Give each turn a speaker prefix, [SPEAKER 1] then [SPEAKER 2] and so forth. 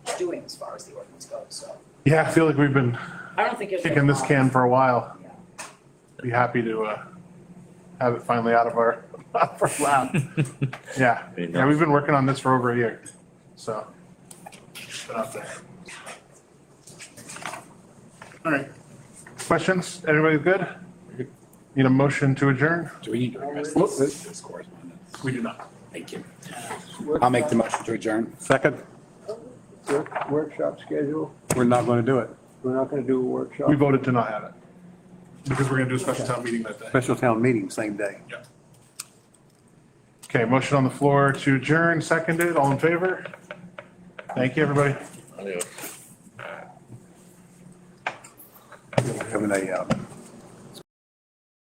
[SPEAKER 1] doing as far as the ordinance goes, so.
[SPEAKER 2] Yeah, I feel like we've been
[SPEAKER 1] I don't think it's.
[SPEAKER 2] kicking this can for a while.
[SPEAKER 1] Yeah.
[SPEAKER 2] Be happy to, uh, have it finally out of our, out of our lap. Yeah, yeah, we've been working on this for over a year, so. it's Been out there. All right, questions? Everybody good? Need a motion to adjourn?
[SPEAKER 3] Do we need to address this this correspondence?
[SPEAKER 2] We do not.
[SPEAKER 3] Thank you. I'll make the motion to adjourn.
[SPEAKER 4] Second,
[SPEAKER 5] Work- Workshop schedule,
[SPEAKER 4] we're not going to do it.
[SPEAKER 5] we're not gonna do a workshop.
[SPEAKER 2] We voted to not have it. Because we're gonna do a special town meeting that day.
[SPEAKER 4] Special town meeting, same day.
[SPEAKER 2] Yeah. Okay, motion on the floor to adjourn, seconded, all in favor? Thank you, everybody.
[SPEAKER 4] Having a, uh,